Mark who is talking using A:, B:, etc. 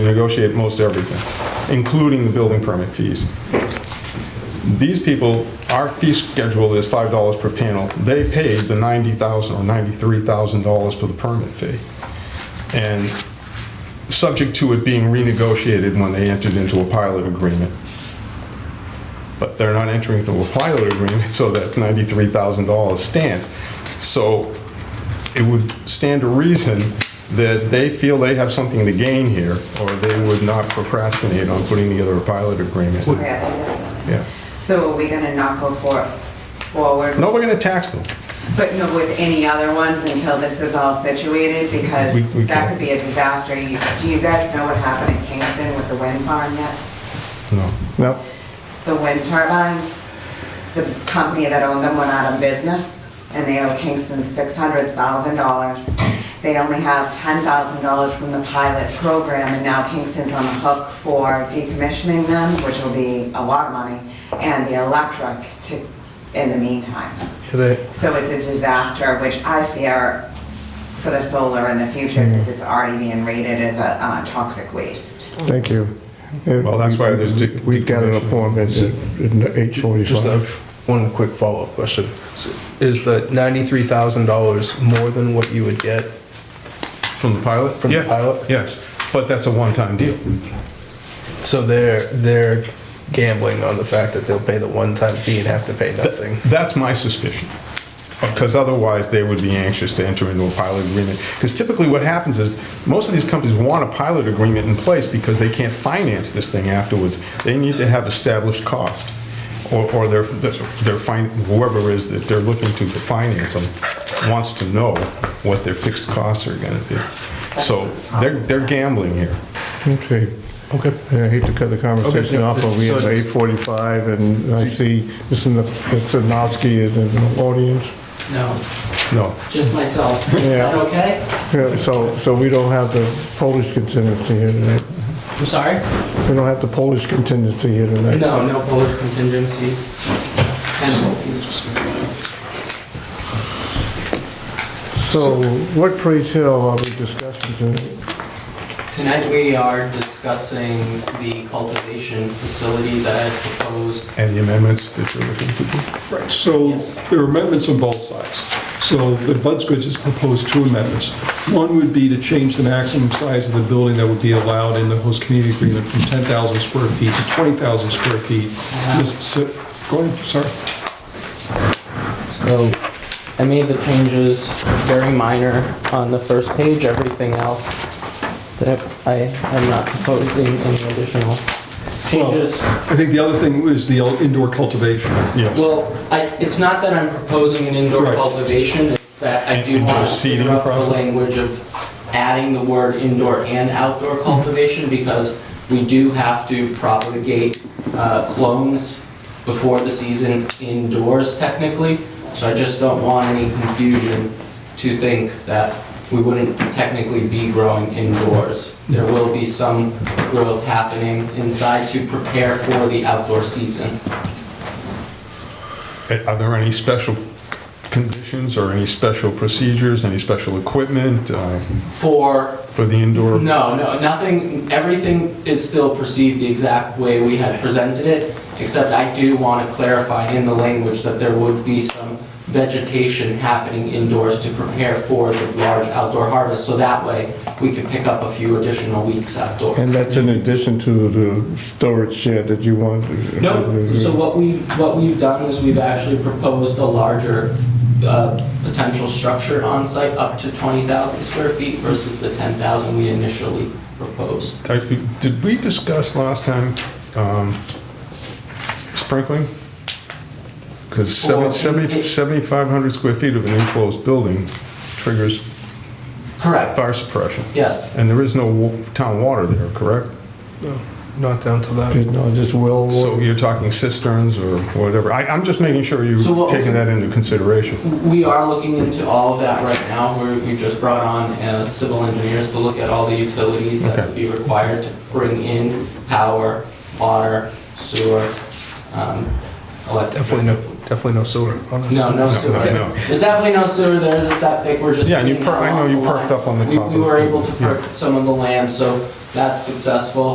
A: negotiate most everything, including the building permit fees. These people, our fee schedule is $5 per panel. They paid the $90,000 or $93,000 for the permit fee. And subject to it being renegotiated when they entered into a pilot agreement. But they're not entering into a pilot agreement, so that $93,000 stands. So it would stand to reason that they feel they have something to gain here, or they would not procrastinate on putting together a pilot agreement.
B: Yeah.
A: Yeah.
B: So are we gonna not go for, forward?
A: No, we're going to tax them.
B: But no, with any other ones until this is all situated, because
A: We- we
B: that
A: can't.
B: could be a disaster. You- Do you guys know what happened in Kingston with the wind farm yet?
A: No. No.
B: The wind turbines, the company that owned them went out of business, and they owe Kingston six hundred thousand dollars. They only have ten thousand dollars from the pilot program, and now Kingston's on the hook for decommissioning them, which will be a lot of money, and the electric to, in the meantime.
C: They-
B: So it's a disaster, which I fear for the solar in the future because it's already being rated as a uh, toxic waste.
C: Thank you.
A: Well, that's why there's de-
C: We've got an
A: decommission.
C: appointment at eight
D: Just a-
C: forty-five.
D: one quick follow-up question. S- Is the ninety-three thousand dollars more than what you would get?
A: From the pilot?
D: From the
A: Yeah,
D: pilot?
A: Yes, but that's a one-time deal.
D: So they're, they're gambling on the fact that they'll pay the one-time fee and have to pay nothing.
A: That's my suspicion. Because otherwise, they would be anxious to enter into a pilot agreement. Because typically what happens is, most of these companies want a pilot agreement in place because they can't finance this thing afterwards. They need to have established cost, or, or their, their, fin- whoever is that they're looking to finance them wants to know what their fixed costs are gonna be. So they're, they're gambling here.
C: Okay.
D: Okay.
C: I hate to cut the conversation
D: Okay,
C: off, but we
D: so
C: have
D: it's-
C: eight forty-five and I see Mr. N- Mr. Nosky is in the audience.
E: No,
A: No,
E: just myself. Is
C: Yeah.
E: that okay?
C: Yeah, So, so we don't have the Polish contingency here tonight.
E: I'm sorry?
C: We don't have the Polish contingency here tonight.
E: No, no Polish contingencies. Contingencies.
C: So what Praise Hill are we discussing tonight?
E: Tonight we are discussing the cultivation facility that I had proposed.
A: and the amendments that you're looking to do.
F: Right, so
E: Yes.
F: there are amendments on both sides. So the Buds Goods has proposed two amendments. One would be to change the maximum size of the building that would be allowed in the host community agreement from 10,000 square feet to 20,000 square feet. This- so- Go ahead, sorry.
E: So I made the changes, very minor, on the first page, everything else that I am not proposing any additional changes.
F: I think the other thing was the indoor cultivation.
A: Yes.
E: Well, I, it's not that I'm proposing an indoor
F: Correct.
E: cultivation, it's that I do
A: Indoor
E: want to
A: seeding
E: clear up the
A: process?
E: language of adding the word indoor and outdoor
A: Mm-hmm.
E: cultivation, because we do have to propagate uh, clones before the season indoors technically, so I just don't want any confusion to think that we wouldn't technically be growing indoors. There will be some growth happening inside to prepare for the outdoor season.
A: Are there any special conditions or any special procedures, any special equipment uh,
E: For
A: for the indoor?
E: No, no, nothing, everything is still perceived the exact way we had presented it, except I do want to clarify in the language that there would be some vegetation happening indoors to prepare for the large outdoor harvest, so that way we could pick up a few additional weeks outdoors.
C: And that's in addition to the storage shed that you want.
E: No, so what we've, what we've done is we've actually proposed a larger uh, potential structure on site, up to 20,000 square feet versus the 10,000 we initially proposed.
A: I think- Did we discuss last time um, sprinkling? Because
E: Well,
A: 7,500 square feet of an enclosed building triggers
E: Correct,
A: fire suppression.
E: yes.
A: And there is no wa- town water there, correct?
D: Not down to that.
C: No, just well
A: So you're talking cisterns or whatever. I- I'm just making sure
E: So
A: you've
E: what-
A: taken that into consideration.
E: We are looking into all of that right now. We're- We just brought on uh, civil engineers to look at all the utilities that
A: Okay.
E: would be required to bring in power, water, sewer, um, electric.
D: Definitely no, definitely no sewer on that.
E: No, no sewer.
A: no.
E: There's definitely no sewer, there is a septic, we're just
A: Yeah, and you
E: seeing
A: per-
E: how
A: I know you
E: long the
A: perked
E: line-
A: up on the
E: we-
A: top
E: We
A: of
E: were
A: the-
E: able to
A: yeah.
E: perk some of the land, so that's successful,